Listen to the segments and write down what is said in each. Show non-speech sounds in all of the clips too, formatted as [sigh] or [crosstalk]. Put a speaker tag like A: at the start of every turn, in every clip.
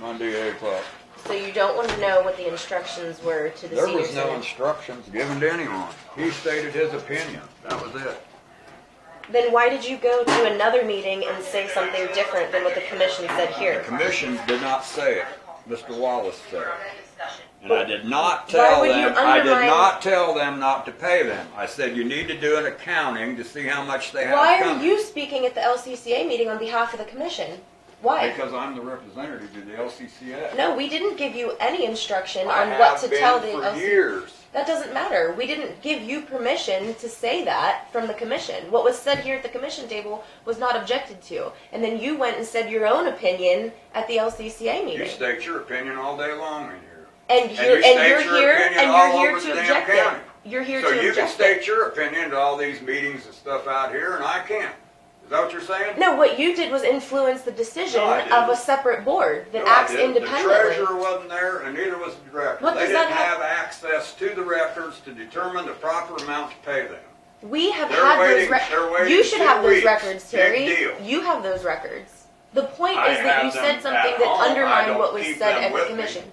A: Monday, eight o'clock.
B: So you don't want to know what the instructions were to the
A: There
B: senior
A: was no
B: center.
A: instructions given to anyone. He stated his opinion. That was it.
B: Then why did you go to another meeting and say something different than what the commission said
A: The
B: here?
A: commission did not say it. Mr. Wallace said it. And I did not
B: Why
A: tell
B: would you
A: them, I did
B: undermine-
A: not tell them not to pay them. I said, you need to do an accounting to see how much they have
B: Why are
A: coming.
B: you speaking at the LCCA meeting on behalf of the commission? Why?
A: Because I'm the representative to the LCCA.
B: No, we didn't give you any instruction
A: I
B: on what
A: have
B: to
A: been
B: tell the
A: For
B: LCCA.
A: years.
B: That doesn't matter. We didn't give you permission to say that from the commission. What was said here at the commission table was not objected to. And then you went and said your own opinion at the LCCA
A: You
B: meeting.
A: state your opinion all day long in here.
B: And
A: you
B: you're, and
A: state
B: you're
A: your
B: here,
A: opinion
B: and
A: all
B: you're here
A: over
B: to
A: the damn
B: object
A: county.
B: it. You're here
A: So
B: to
A: you can
B: object it.
A: state your opinion to all these meetings and stuff out here, and I can't. Is that what you're saying?
B: No, what you did was influence the decision
A: No, I didn't.
B: of a separate board that
A: No, I
B: acts
A: didn't.
B: independently.
A: The treasurer wasn't there, and neither was the director.
B: What
A: They
B: does
A: didn't
B: that have-
A: have access to the records to determine the proper amount to pay them.
B: We have
A: They're
B: had
A: waiting-
B: those
A: they're
B: records.
A: waiting
B: You should
A: two
B: have those
A: weeks.
B: records,
A: Big
B: Terry.
A: deal.
B: You have those records. The point
A: I
B: is that you
A: have them
B: said something
A: at
B: that
A: home. I
B: undermined
A: don't
B: what was
A: keep
B: said
A: them
B: at the
A: with me.
B: commission.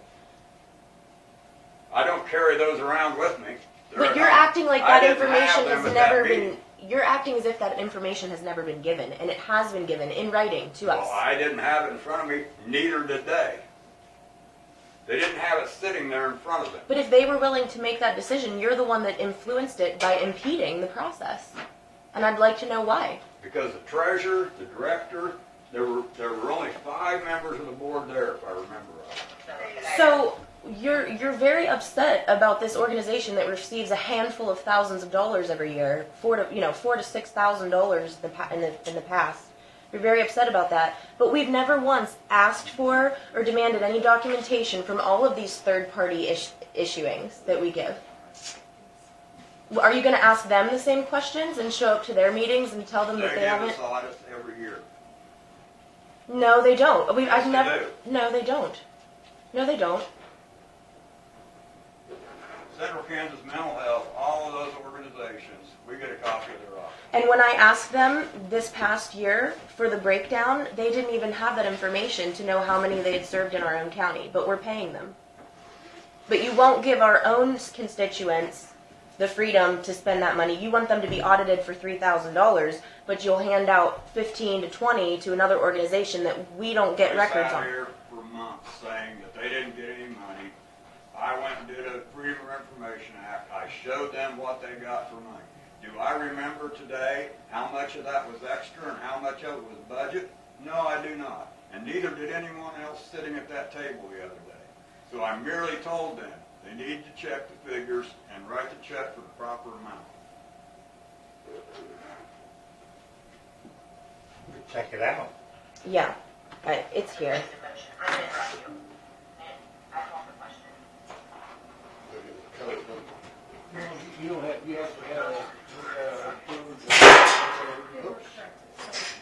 A: I don't carry those around with me. They're
B: But you're
A: not-
B: acting like
A: I
B: that
A: didn't have
B: information
A: them
B: has
A: at that
B: never
A: meeting.
B: been, you're acting as if that information has never been given, and it has been given in writing to
A: Well,
B: us.
A: I didn't have it in front of me, neither did they. They didn't have it sitting there in front of them.
B: But if they were willing to make that decision, you're the one that influenced it by impeding the process. And I'd like to know why.
A: Because the treasurer, the director, there were, there were only five members of the board there, if I remember right.
B: So you're you're very upset about this organization that receives a handful of thousands of dollars every year, four to you know four to six thousand dollars in the pa- in the in the past. You're very upset about that, but we've never once asked for or demanded any documentation from all of these third-party ish- issuings that we give. Are you going to ask them the same questions and show up to their meetings and tell them
A: They
B: that
A: give
B: they haven't?
A: us audits every year.
B: No, they don't. We,
A: Yes,
B: I've
A: they
B: never. No, they don't. No, they don't.
A: Central Kansas Mental Health, all of those organizations, we get a copy of their audit.
B: And when I asked them this past year for the breakdown, they didn't even have that information to know how many they had served in our own county, but we're paying them. But you won't give our own constituents the freedom to spend that money. You want them to be audited for three thousand dollars, but you'll hand out fifteen to twenty to another organization that we don't get records
A: They sat
B: on.
A: here for months saying that they didn't get any money. I went and did a Freedom of Information Act. I showed them what they got for money. Do I remember today how much of that was extra and how much of it was budget? No, I do not. And neither did anyone else sitting at that table the other day. So I merely told them, they need to check the figures and write the check for the proper amount.
C: Check it out.
B: Yeah, I- it's here.
C: You don't have, you have to have, uh, approved, uh, oops.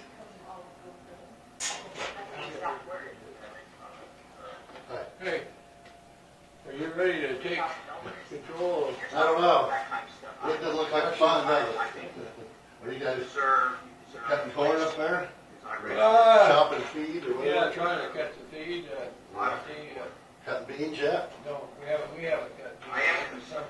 D: Hey, are you ready to take control of
E: I don't know. It doesn't look like fun, does it? Are you guys cutting corn up there?
D: Uh,
E: Chopping feed or
D: yeah,
E: whatever?
D: trying to cut the feed, uh, the, uh,
E: Cutting beans yet?
D: no, we haven't, we haven't cut. the feed. Some,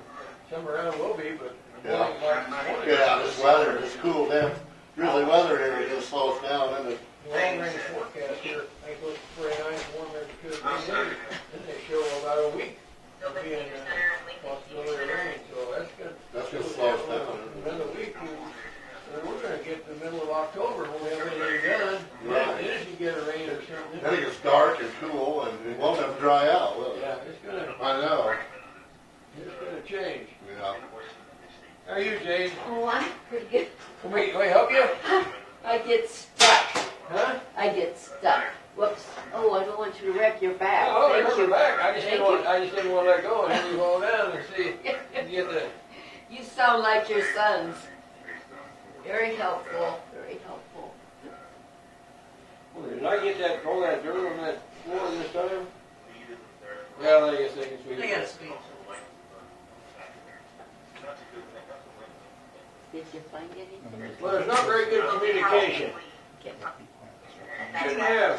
D: some around will be, but.
E: Yeah.
D: Good
E: Get out this weather, it's cool down. Really weather here, it just slows down, and it,
D: Long range forecast here, I think it's pretty nice, warm as it could be, there. and they show about a week of being, uh, possibility of rain, so that's good.
E: That's gonna slow us down.
D: Another week, we- we're gonna get to the middle of October, when we have anything done,
E: Right.
D: and if you get a rain or something.
E: then it gets dark and cool, and it won't ever dry out, will it?
D: Yeah, it's gonna,
E: I know,
D: it's gonna change.
E: yeah.
D: How are you, Jane?
F: Oh, I'm pretty good.
D: Can we, can we help you?
F: [laughs] I get stuck.
D: Huh?
F: I get stuck. Whoops. Oh, I don't want you to wreck your back.
D: Oh, I
F: Thank
D: heard
F: you.
D: her back. I just
F: Thank
D: didn't
F: you.
D: want, I just didn't want to let go and have you fall down and see, and get the,
F: You sound like your sons. Very helpful. Very helpful.
D: Well, did I get that, all that dirt on that floor this time? Well, I guess they can sweep. it.
F: Did you find anything?
D: Well, there's not very good communication.
F: Get-
D: Shouldn't have.